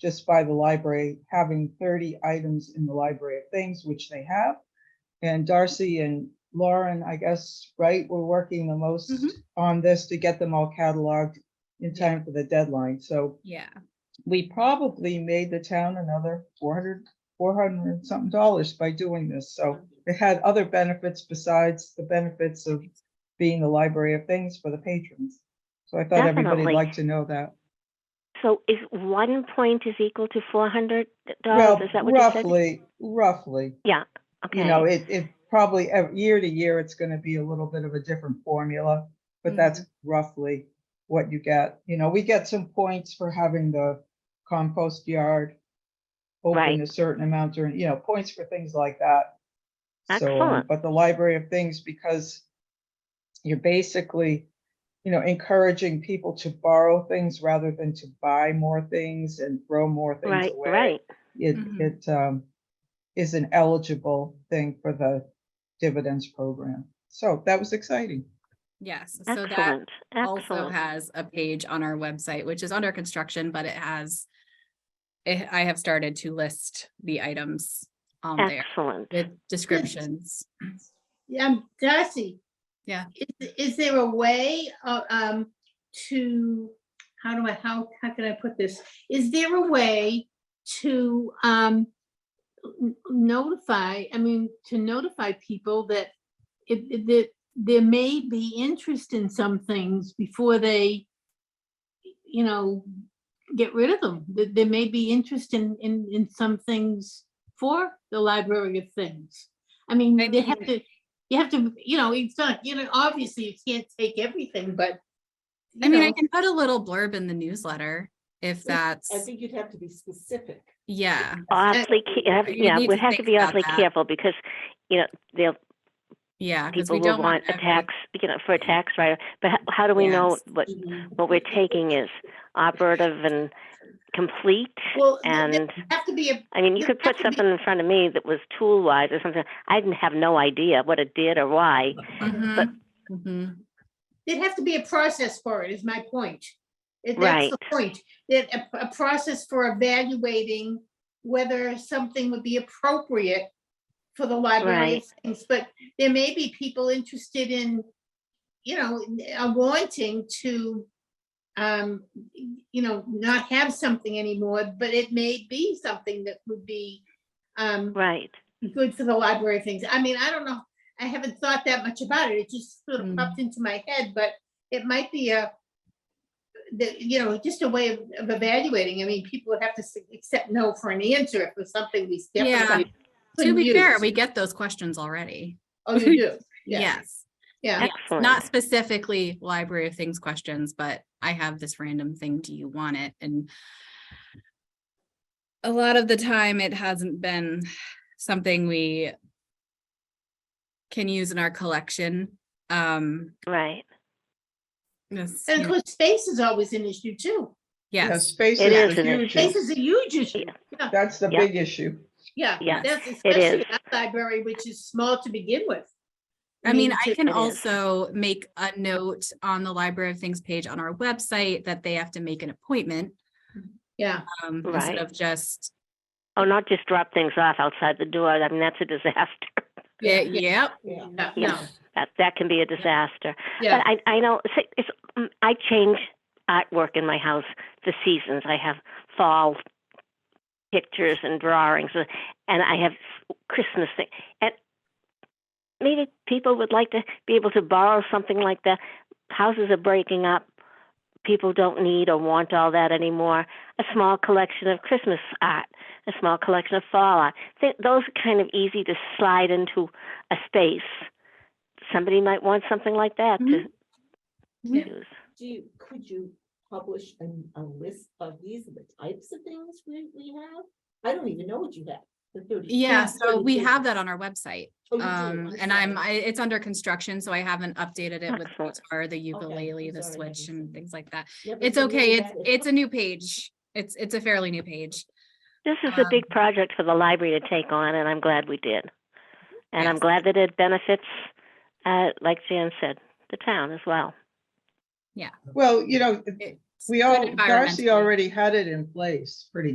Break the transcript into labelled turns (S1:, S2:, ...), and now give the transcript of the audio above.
S1: just by the library having thirty items in the library of things, which they have. And Darcy and Lauren, I guess, right, were working the most
S2: Mm-hmm.
S3: Mhm.
S1: on this to get them all cataloged in time for the deadline. So
S3: Yeah,
S1: we probably made the town another 400, 400 and something dollars by doing this. So it had other benefits besides the benefits of being the library of things for the patrons. So I thought everybody'd
S2: Definitely.
S1: like to know that.
S2: So is one point is equal to four hundred
S1: Well,
S2: dollars? Is that what you said?
S1: roughly, roughly, you know,
S2: Okay,
S1: it, it probably, ev- year to year, it's gonna be a little bit of a different formula,
S2: Mm-hmm.
S1: but that's roughly what you get. You know, we get some points for having the compost yard open
S2: Right.
S1: a certain amount during, you know, points for things like that. So, um,
S2: Excellent.
S1: but the library of things, because you're basically, you know, encouraging people to borrow things rather than to buy more things and throw more things
S2: right,
S1: away
S2: right.
S1: it,
S3: Mhm.
S1: it um, is an eligible thing for the dividends program. So that was exciting.
S3: yes. So that
S2: Excellent,
S3: also
S2: excellent.
S3: has a page on our website, which is under construction, but it has. it- I have started to list the items on there
S2: Excellent.
S3: with descriptions.
S4: Yeah, um, Darcy.
S3: Yeah.
S4: Is, is there a way, uh, um, to, how do I, how, how can I put this? Is there a way to, um, n- notify, I mean, to notify people that if, if that there may be interest in some things before they, you know, get rid of them, that there may be interest in, in, in some things for the library of things. I mean,
S3: I
S4: they have
S3: mean-
S4: to, you have to, you know, it's not, you know, obviously you can't take everything, but.
S3: I
S4: you
S3: mean, I
S4: know,
S3: can put a little blurb in the newsletter if that's,
S5: I think you'd have to be specific.
S3: yeah.
S2: Awfully, ca- have-
S3: you
S2: yeah,
S3: need
S2: we
S3: to
S2: have to
S3: think
S2: be
S3: about
S2: awfully
S3: that.
S2: careful because, you know, they'll,
S3: Yeah, because
S2: people
S3: we
S2: will
S3: don't
S2: want
S3: want
S2: a
S3: every-
S2: tax, you know, for a tax write-off. But how, how do we know
S3: Yes.
S2: what, what we're taking is operative and complete?
S4: Well, there- there
S2: And,
S4: have to be a
S2: I mean, you
S4: there
S2: could
S4: has
S2: put
S4: to be-
S2: something in front of me that was tool-wise or something. I didn't have no idea what it did or why.
S3: Mhm, mhm.
S4: There'd have to be a process for it, is my point. It- That's
S2: Right.
S4: the point, that a, a process for evaluating whether something would be appropriate for the library. of
S2: Right.
S4: things. But there may be people interested in, you know, n- uh, wanting to, um, you know, not have something anymore, but it may be something that would be, um,
S2: Right,
S4: good for the library things. I mean, I don't know. I haven't thought that much about it. It just sort of
S3: Mm.
S4: popped into my head, but it might be a, the, you know, just a way of of evaluating. I mean, people would have to s- accept no for an answer if it was something we
S3: Yeah.
S4: definitely.
S3: To
S4: couldn't
S3: be fair,
S4: use.
S3: we get those questions already.
S4: Oh, you do? Yeah.
S3: Yes.
S4: Oh, Yeah.
S3: Yes,
S2: excellent.
S3: Not specifically library of things questions, but I have this random thing, do you want it? And a lot of the time it hasn't been something we can use in our collection. Um,
S2: right.
S3: this-
S4: And of course, space is always an issue too.
S1: You know,
S3: yes,
S1: Space
S2: It
S1: is
S2: is
S1: a
S2: an
S1: huge,
S4: Space
S1: issue.
S4: is a huge issue. Yeah,
S1: that's the
S2: Yeah.
S1: big issue.
S4: yeah.
S2: Yes,
S4: That's
S2: is.
S4: especially our library, which is small to begin with.
S3: I mean,
S4: it's
S3: I
S4: just-
S3: can
S2: it is.
S3: also make a note on the library of things page on our website that they have to make an appointment.
S4: Yeah,
S3: um, instead
S2: Right.
S3: of just,
S2: Oh, not just drop things off outside the door. I mean, that's a disaster.
S4: Yeah,
S3: "Eh, yep,
S5: Yeah.
S4: yeah,
S2: Yeah.
S4: no,
S2: That, that can be a disaster.
S4: yeah.
S2: But I, I know it's, it's, mm, I change artwork in my house the seasons. I have fall pictures and drawings, uh, and I have Christmas thing. And maybe people would like to be able to borrow something like that. Houses are breaking up. People don't need or want all that anymore. A small collection of Christmas art, a small collection of fall art. Th- those are kind of easy to slide into a space. Somebody might want something like that to
S4: Yeah.
S2: use.
S5: Do you, could you publish a, a list of these, are the types of things we, we have? I don't even know what you have. the 30
S3: yeah,
S5: yeah,
S3: so we
S5: 30.
S3: have that on our website.
S5: Oh, you do,
S3: Um, and
S5: sorry.
S3: I'm, I, it's under construction, so I haven't updated it with the
S2: Excellent.
S3: guitar, the
S5: I'm
S3: ukulele, the
S5: sorry, I
S3: switch
S5: didn't see
S3: and
S5: that.
S3: things like that.
S5: Yeah, but
S3: It's
S5: the list
S3: okay,
S5: of
S3: it's,
S5: that is-
S3: it's a new page. It's, it's a fairly new page.
S2: This is a big
S3: Um,
S2: project for the library to take on, and I'm glad we did. And I'm
S3: Yes.
S2: glad that it benefits, uh, like Jan said, the town as well.
S1: Well, you know,
S3: It's
S1: we
S3: good
S1: all, Darcy
S3: environmentally.
S1: already had it in place, pretty